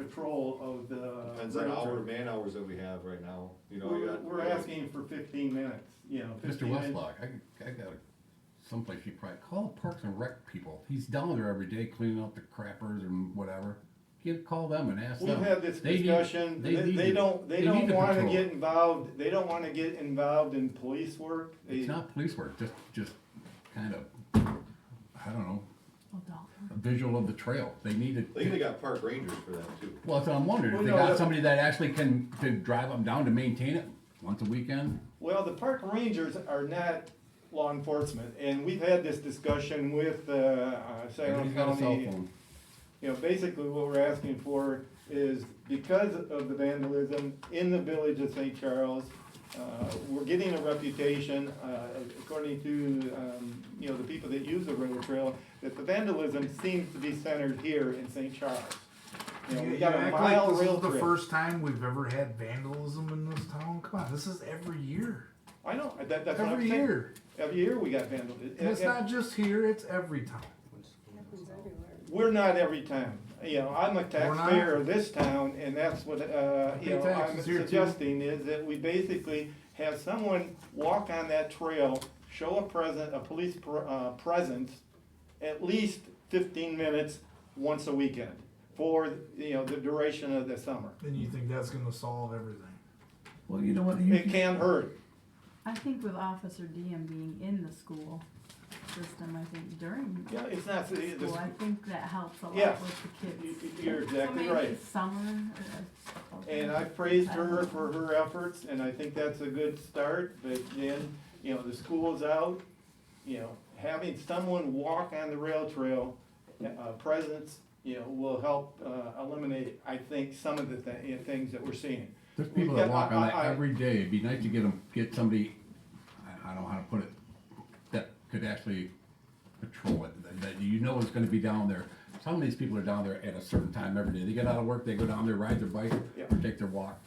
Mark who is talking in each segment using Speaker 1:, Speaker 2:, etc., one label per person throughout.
Speaker 1: patrol of the.
Speaker 2: Depends on hour,
Speaker 1: railroad.
Speaker 2: man hours that we have right now, you know. you
Speaker 1: Um, We're,
Speaker 2: got-
Speaker 1: we're asking for fifteen minutes, you know,
Speaker 3: Mr.
Speaker 1: fifteen minutes.
Speaker 3: Westlock, I, I got a, someplace you probably, call the Parks and Rec people. He's down there every day cleaning up the crappers and whatever. Get, call them and ask them.
Speaker 1: We've had this
Speaker 3: They need-
Speaker 1: discussion, they,
Speaker 3: need
Speaker 1: they
Speaker 3: to-
Speaker 1: don't, they
Speaker 3: need
Speaker 1: don't
Speaker 3: to
Speaker 1: wanna
Speaker 3: patrol.
Speaker 1: get involved, they don't wanna get involved in police work. They-
Speaker 3: It's not police work, just, just kind of, I don't know, a visual of the trail. They need
Speaker 2: They even
Speaker 3: to,
Speaker 2: got park rangers for that too.
Speaker 3: well, that's what I'm wondering.
Speaker 1: Well,
Speaker 3: If they
Speaker 1: no,
Speaker 3: got
Speaker 1: that-
Speaker 3: somebody that actually can, to drive them down to maintain it once a weekend.
Speaker 1: Well, the park rangers are not law enforcement, and we've had this discussion with, uh, uh, Saginaw
Speaker 3: Everybody's got a cell
Speaker 1: County.
Speaker 3: phone.
Speaker 1: You know, basically what we're asking for is because of the vandalism in the village of St. Charles, uh, we're getting a reputation, uh, according to, um, you know, the people that use the railroad trail, that the vandalism seems to be centered here in St. Charles. You know,
Speaker 4: You
Speaker 1: we got a
Speaker 4: act like
Speaker 1: mile
Speaker 4: this
Speaker 1: rail
Speaker 4: is the
Speaker 1: trail.
Speaker 4: first time we've ever had vandalism in this town. Come on, this is every year.
Speaker 1: I know, that, that's what I'm
Speaker 4: Every
Speaker 1: saying.
Speaker 4: year.
Speaker 1: Every year we got vandalism.
Speaker 4: And it's not just here, it's every time.
Speaker 5: Happens everywhere.
Speaker 1: We're not every town, you know, I'm a
Speaker 4: not?
Speaker 1: taxpayer of this town, and that's what, uh,
Speaker 4: I pay
Speaker 1: you know, I'm
Speaker 4: taxes here, too.
Speaker 1: suggesting is that we basically have someone walk on that trail, show a present, a police pr- uh, presence, at least fifteen minutes once a weekend, for, you know, the duration of the summer.
Speaker 4: And you think that's gonna solve everything.
Speaker 3: Well, you know what? you-
Speaker 1: It can hurt,
Speaker 6: I think with Officer Diem being in the school system, I think during
Speaker 1: yeah, it's not, it-
Speaker 6: school, I
Speaker 1: it's-
Speaker 6: think that helps a lot
Speaker 1: Yeah.
Speaker 6: with the kids.
Speaker 1: you- you're exactly
Speaker 6: so maybe
Speaker 1: right.
Speaker 6: Summer. uh,
Speaker 1: And I praised her for her efforts, and I think that's a good start, but then, you know, the school's out, you know, having someone walk on the rail trail, uh, presence, you know, will help, uh, eliminate, I think, some of the thi- you know, things that we're seeing.
Speaker 3: There's people that
Speaker 1: Yeah,
Speaker 3: walk on that
Speaker 1: I- I-
Speaker 3: every day. It'd be nice to get them, get somebody, I, I don't know how to put it, that could actually patrol it, that- that you know is gonna be down there. Some of these people are down there at a certain time every day. They get out of work, they go down there, ride their bike,
Speaker 1: Yeah.
Speaker 3: or take their walk.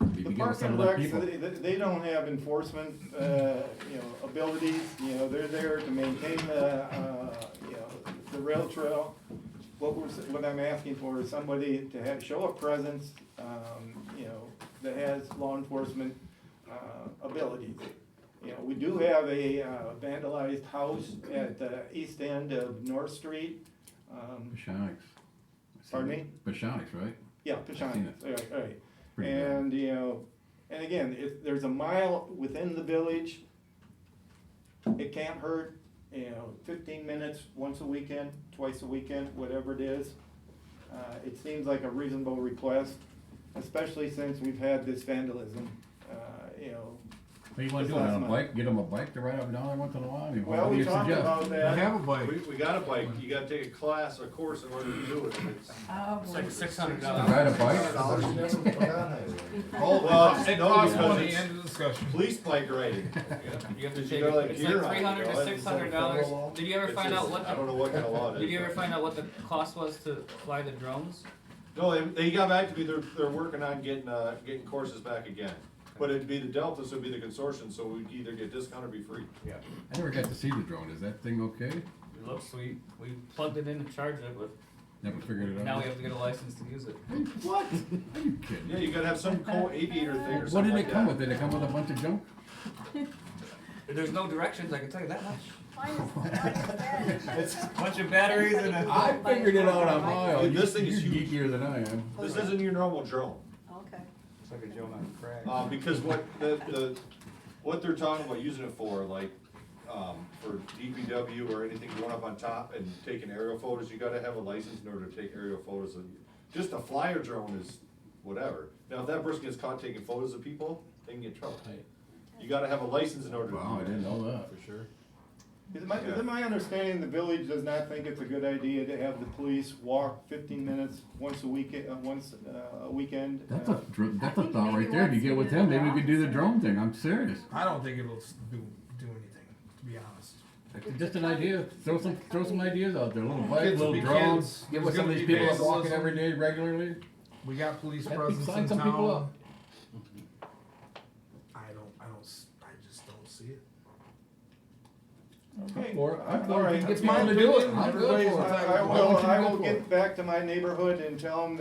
Speaker 3: Maybe
Speaker 1: The
Speaker 3: give
Speaker 1: park
Speaker 3: some
Speaker 1: and
Speaker 3: of the
Speaker 1: recs,
Speaker 3: people.
Speaker 1: they, they- they don't have enforcement, uh, you know, abilities, you know, they're there to maintain the, uh, you know, the rail trail. What we're, s- what I'm asking for is somebody to have, show a presence, um, you know, that has law enforcement, uh, abilities. You know, we do have a uh, vandalized house at the east end of North Street, um,
Speaker 3: Bashanics.
Speaker 1: Pardon me?
Speaker 3: Bashanics, right?
Speaker 1: yeah,
Speaker 3: seen
Speaker 1: Pechanias, all right, all right.
Speaker 3: Pretty bad.
Speaker 1: And, you know, and again, if there's a mile within the village, it can't hurt, you know, fifteen minutes, once a weekend, twice a weekend, whatever it is. Uh, it seems like a reasonable request, especially since we've had this vandalism, uh, you know.
Speaker 3: What do you wanna
Speaker 1: Just
Speaker 3: do,
Speaker 1: last
Speaker 3: on a
Speaker 1: month.
Speaker 3: bike, get them a bike to ride up and down there once in a while? I mean, what
Speaker 1: Well,
Speaker 3: do
Speaker 1: we
Speaker 3: you
Speaker 1: talked
Speaker 3: suggest?
Speaker 1: about
Speaker 4: I
Speaker 1: that,
Speaker 4: have a bike.
Speaker 2: We, we got a bike, you gotta take a class, a course in order to do it. It's-
Speaker 6: Oh, boy.
Speaker 7: Like six
Speaker 3: To
Speaker 7: hundred dollars.
Speaker 3: Ride a bike?
Speaker 2: Dollars never put on it.
Speaker 4: Oh,
Speaker 2: Well, it's-
Speaker 4: It
Speaker 2: no,
Speaker 4: costs
Speaker 2: because
Speaker 4: money,
Speaker 2: it's
Speaker 4: end of discussion.
Speaker 2: Police bike riding.
Speaker 7: You have to
Speaker 2: You
Speaker 7: take,
Speaker 2: go like
Speaker 7: it's
Speaker 2: gear
Speaker 7: like
Speaker 2: on,
Speaker 7: three hundred
Speaker 2: you
Speaker 7: to
Speaker 2: know,
Speaker 7: six
Speaker 2: it's
Speaker 7: hundred
Speaker 2: like
Speaker 7: dollars.
Speaker 2: federal law.
Speaker 7: Did you ever
Speaker 2: It's
Speaker 7: find
Speaker 2: just-
Speaker 7: out what
Speaker 2: I don't
Speaker 7: the,
Speaker 2: know what kind of law it is.
Speaker 7: did you ever
Speaker 2: but-
Speaker 7: find out what the cost was to fly the drones?
Speaker 2: No, they, they got back to me, they're, they're working on getting, uh, getting courses back again. But it'd be the Delta, so it'd be the consortium, so we'd either get discount or be free.
Speaker 7: Yeah.
Speaker 3: I never got to see the drone. Is that thing okay?
Speaker 7: It looks sweet. We plugged it in and charged it, but
Speaker 3: Never figured it out.
Speaker 7: now we have to get a license to use it.
Speaker 3: What? Are you kidding?
Speaker 2: Yeah, you gotta have some co-aviator thing or
Speaker 3: What
Speaker 2: something
Speaker 3: did
Speaker 2: like
Speaker 3: it come
Speaker 2: that.
Speaker 3: with? Did it come with a bunch of junk?
Speaker 7: There's no directions, I can tell you that much.
Speaker 5: Why is, why is that?
Speaker 7: It's a bunch of batteries and a.
Speaker 3: I figured it out on my own.
Speaker 2: Dude, this thing
Speaker 3: You're
Speaker 2: is huge.
Speaker 3: geekier than I am.
Speaker 2: This isn't your normal drone,
Speaker 5: Okay.
Speaker 7: It's like a drone on crack.
Speaker 2: uh, because what, the, the, what they're talking about using it for, like, um, for DPW or anything going up on top and taking aerial photos, you gotta have a license in order to take aerial photos of, just a flyer drone is whatever. Now, if that person gets caught taking photos of people, they can get in trouble. You gotta have a license in order to do
Speaker 3: Wow, I
Speaker 2: that.
Speaker 3: didn't know that.
Speaker 2: For sure.
Speaker 1: is my, is it my understanding the village does not think it's a good idea to have the police walk fifteen minutes once a week, uh, once, uh, a weekend?
Speaker 3: That's
Speaker 1: uh,
Speaker 3: a dr- that's
Speaker 6: I
Speaker 3: a
Speaker 6: think
Speaker 3: thought
Speaker 6: maybe
Speaker 3: right there. If you
Speaker 6: once
Speaker 3: get
Speaker 6: you
Speaker 3: with
Speaker 6: do
Speaker 3: him,
Speaker 6: the
Speaker 3: maybe we could do the
Speaker 6: opposite.
Speaker 3: drone thing. I'm serious.
Speaker 4: I don't think it'll s- do, do anything, to be honest.
Speaker 3: It's Just an idea. Throw some throw some ideas out there. Little bike,
Speaker 4: Kids will
Speaker 3: little
Speaker 4: be
Speaker 3: drone.
Speaker 4: kids.
Speaker 3: Get
Speaker 4: There's
Speaker 3: with some of
Speaker 4: gonna
Speaker 3: these
Speaker 4: be
Speaker 3: people that walk it
Speaker 4: vandalism.
Speaker 3: every day regularly.
Speaker 4: We got police
Speaker 3: That'd
Speaker 4: presence
Speaker 3: sign
Speaker 4: in
Speaker 3: some
Speaker 4: town.
Speaker 3: people up.
Speaker 4: I don't, I don't, s- I just don't see it.
Speaker 1: Okay.
Speaker 3: Or I'm
Speaker 1: All
Speaker 3: for it.
Speaker 1: right.
Speaker 3: Get
Speaker 4: my
Speaker 3: people to do it.
Speaker 4: opinion.
Speaker 3: I'm good
Speaker 4: Everybody's
Speaker 3: for it.
Speaker 4: entitled.
Speaker 1: I I
Speaker 3: Why don't
Speaker 1: will,
Speaker 3: you
Speaker 1: I
Speaker 3: go
Speaker 1: will
Speaker 3: for it?
Speaker 1: get back to my neighborhood and tell them